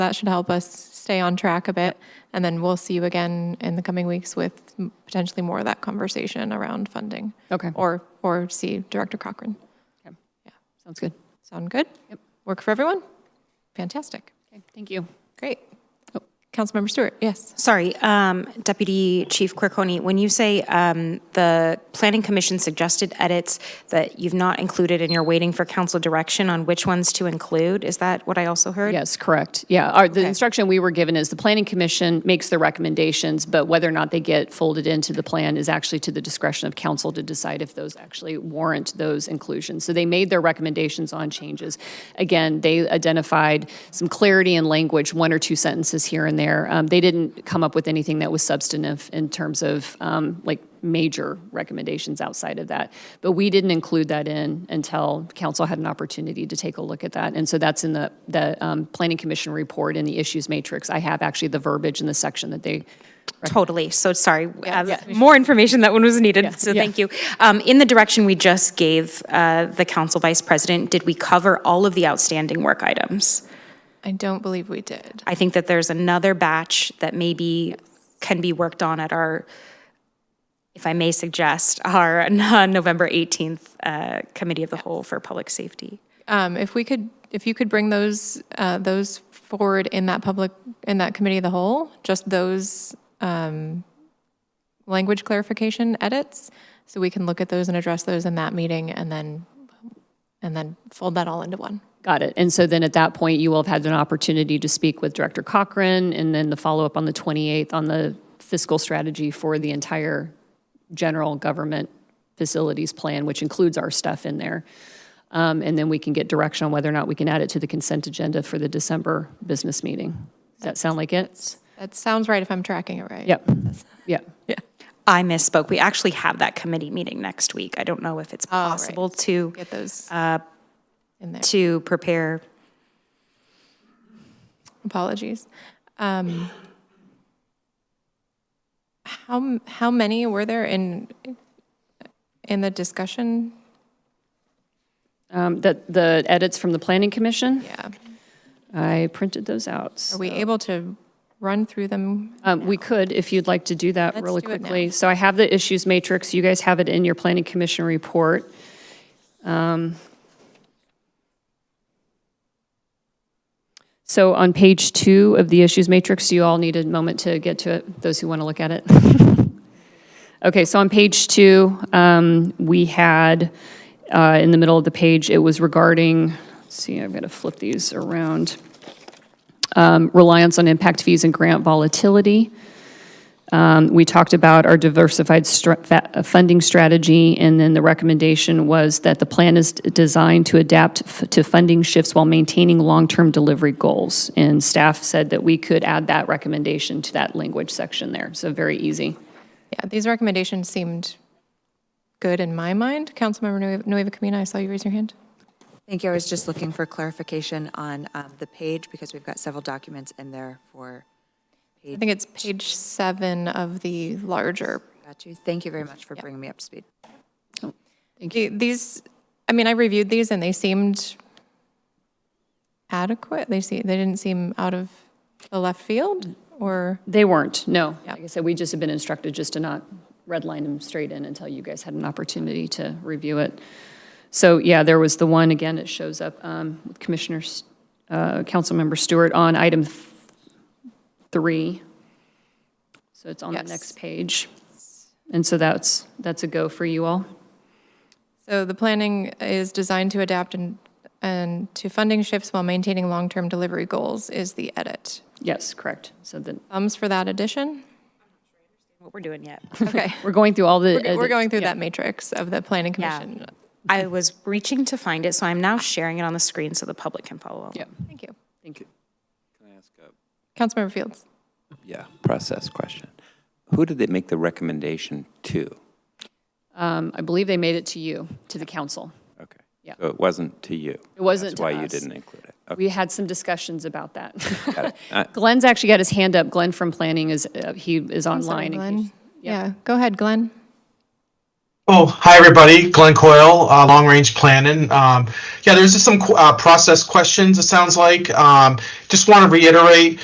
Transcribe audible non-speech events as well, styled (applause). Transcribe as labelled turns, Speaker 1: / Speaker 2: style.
Speaker 1: that should help us stay on track a bit. And then we'll see you again in the coming weeks with m- potentially more of that conversation around funding.
Speaker 2: Okay.
Speaker 1: Or, or see Director Cochran.
Speaker 2: Sounds good.
Speaker 1: Sound good?
Speaker 2: Yep.
Speaker 1: Work for everyone? Fantastic.
Speaker 2: Okay, thank you.
Speaker 1: Great.
Speaker 2: Oh.
Speaker 1: Councilmember Stewart, yes.
Speaker 3: Sorry, um, Deputy Chief Quirconi, when you say um, the Planning Commission suggested edits that you've not included and you're waiting for council direction on which ones to include, is that what I also heard?
Speaker 2: Yes, correct. Yeah, our, the instruction we were given is the planning commission makes the recommendations, but whether or not they get folded into the plan is actually to the discretion of council to decide if those actually warrant those inclusions. So they made their recommendations on changes. Again, they identified some clarity in language, one or two sentences here and there. Um, they didn't come up with anything that was substantive in terms of um, like major recommendations outside of that. But we didn't include that in until council had an opportunity to take a look at that. And so that's in the, the um, Planning Commission report and the issues matrix. I have actually the verbiage in the section that they,
Speaker 3: Totally, so sorry, uh, more information that one was needed, so
Speaker 2: yeah.
Speaker 3: thank you. Um, In the direction we just gave uh, the council vice president, did we cover all of the outstanding work items?
Speaker 1: I don't believe we did.
Speaker 3: I think that there's another batch that maybe can be worked on at our, if I may suggest, our (laughs) November 18th uh, Committee of the Whole for Public Safety.
Speaker 1: Um, If we could, if you could bring those, uh, those forward in that public, in that committee of the whole, just those um, language clarification edits, so we can look at those and address those in that meeting, and then, and then fold that all into one.
Speaker 2: got it. And so then at that point, you will have had an opportunity to speak with Director Cochran and then the follow-up on the 28th on the fiscal strategy for the entire general government facilities plan, which includes our stuff in there. Um, And then we can get direction on whether or not we can add it to the consent agenda for the December business meeting. Does that sound like it?
Speaker 1: That sounds right if I'm tracking it right.
Speaker 2: Yep, yep.
Speaker 3: I misspoke. We actually have that committee meeting next week. I don't know if it's
Speaker 1: right.
Speaker 3: possible to,
Speaker 1: Get those in there.
Speaker 3: to prepare.
Speaker 1: Apologies. Um, How, m- how many were there in, in the discussion?
Speaker 2: Um, That, the edits from the Planning Commission,
Speaker 1: Yeah.
Speaker 2: I printed those out.
Speaker 1: Are we able to run through them?
Speaker 2: Um, We could, if you'd like to do that
Speaker 1: Let's
Speaker 2: really
Speaker 1: do it now.
Speaker 2: quickly. So I have the issues matrix, you guys have it in your planning commission report. Um, So on page two of the issues matrix, do you all need a moment to get to it, those who want to look at it? (laughs) Okay, so on page two, um, we had, uh, in the middle of the page, it was regarding, let's see, I've got to flip these around reliance on impact fees and grant volatility. Um, We talked about our diversified stra- fa- uh, funding strategy, and then the recommendation was that the plan is designed to adapt f- to funding shifts while maintaining long-term delivery goals. And staff said that we could add that recommendation to that language section there, so very easy.
Speaker 1: Yeah, these recommendations seemed good in my mind. Councilmember Nue- Nueva Camina, I saw you raise your hand.
Speaker 4: Thank you. I was just looking for clarification on um, the page because we've got several documents in there for,
Speaker 1: I think it's page seven of the larger
Speaker 4: got you. Thank you very much for bringing me up to speed.
Speaker 1: The- These, I mean, I reviewed these and they seemed adequate. They see, they didn't seem out of the left field or,
Speaker 2: They weren't, no. Like I said, we just have been instructed just to not redline them straight in until you guys had an opportunity to review it. So, yeah, there was the one, again, it shows up um, with Commissioner, S- uh, Councilmember Stewart on item th- three. So it's on the
Speaker 1: Yes.
Speaker 2: next page. And so that's, that's a go for you all.
Speaker 1: so the planning is designed to adapt and, and to funding shifts while maintaining long-term delivery goals is the edit.
Speaker 2: Yes, correct. So then,
Speaker 1: Thumbs for that addition?
Speaker 3: What we're doing yet.
Speaker 1: Okay.
Speaker 2: we're going through all Oh, the.
Speaker 1: We're going through
Speaker 2: yeah.
Speaker 1: that matrix of the planning
Speaker 3: Yeah.
Speaker 1: commission.
Speaker 3: (laughs) I was reaching to find it, so I'm now sharing it on the screen so the public can follow. along.
Speaker 2: Yeah,
Speaker 1: Thank you.
Speaker 2: thank you.
Speaker 1: Councilmember Fields.
Speaker 5: Yeah, process question. Who did they make the recommendation to?
Speaker 2: Um, I believe they made it to you, to the council.
Speaker 5: Okay.
Speaker 2: Yeah.
Speaker 5: So it wasn't to you?
Speaker 2: It wasn't to
Speaker 5: That's why you
Speaker 2: us.
Speaker 5: didn't include it. Okay,
Speaker 2: We had some discussions about that. (laughs)
Speaker 5: got it. Uh,
Speaker 2: Glenn's actually got his hand up. Glenn from planning is, uh, he is
Speaker 1: Sorry,
Speaker 2: online. in
Speaker 1: Glenn.
Speaker 2: case-
Speaker 1: Yeah, go ahead, Glenn.
Speaker 6: Oh, hi, everybody. Glenn Coyle, uh, Long Range Planning. Um, yeah, there's just some qu- uh, process questions, it sounds like. Um, just want to reiterate